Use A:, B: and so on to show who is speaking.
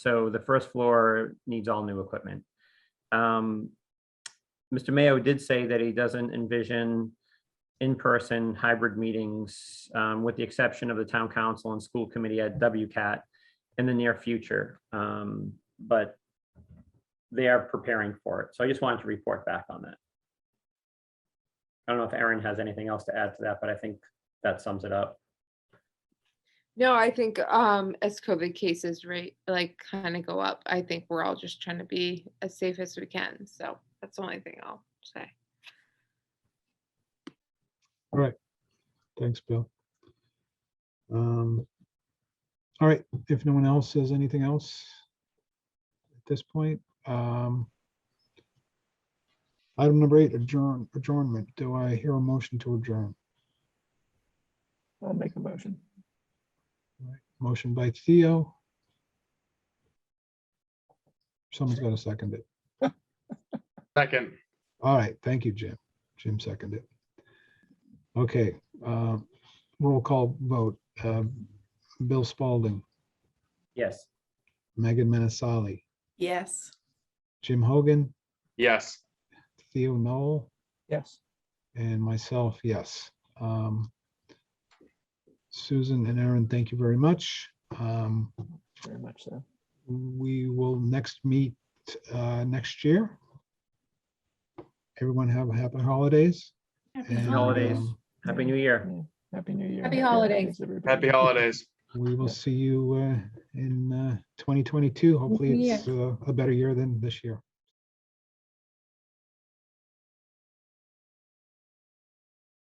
A: So the first floor needs all new equipment. Um, Mr. Mayo did say that he doesn't envision in-person hybrid meetings, um, with the exception of the town council and school committee at WCAT in the near future. Um, but they are preparing for it. So I just wanted to report back on that. I don't know if Aaron has anything else to add to that, but I think that sums it up.
B: No, I think um as COVID cases rate like kind of go up, I think we're all just trying to be as safe as we can. So that's the only thing I'll say.
C: Thanks, Bill. Um, All right, if no one else says anything else at this point, um, item number eight, adjourn, adjournment. Do I hear a motion to adjourn?
D: I'll make a motion.
C: Motion by Theo. Someone's got to second it.
E: Second,
C: All right, thank you, Jim. Jim seconded. Okay, um, roll call vote. Um, Bill Spalding,
A: Yes.
C: Megan Menasali,
F: Yes.
C: Jim Hogan,
E: yes.
C: Theo Noel,
D: Yes.
C: and myself, yes. Um, Susan and Aaron, thank you very much. Um,
D: Very much so.
C: We will next meet uh, next year. Everyone have happy holidays. and,
A: holidays.
C: um,
A: Happy New Year.
D: Yeah. Happy New Year.
B: Happy holidays.
D: everybody.
E: Happy holidays.
C: We will
D: Yeah.
C: see you uh, in uh, 2022. Hopefully,
B: New
C: it's uh, a better year than this year.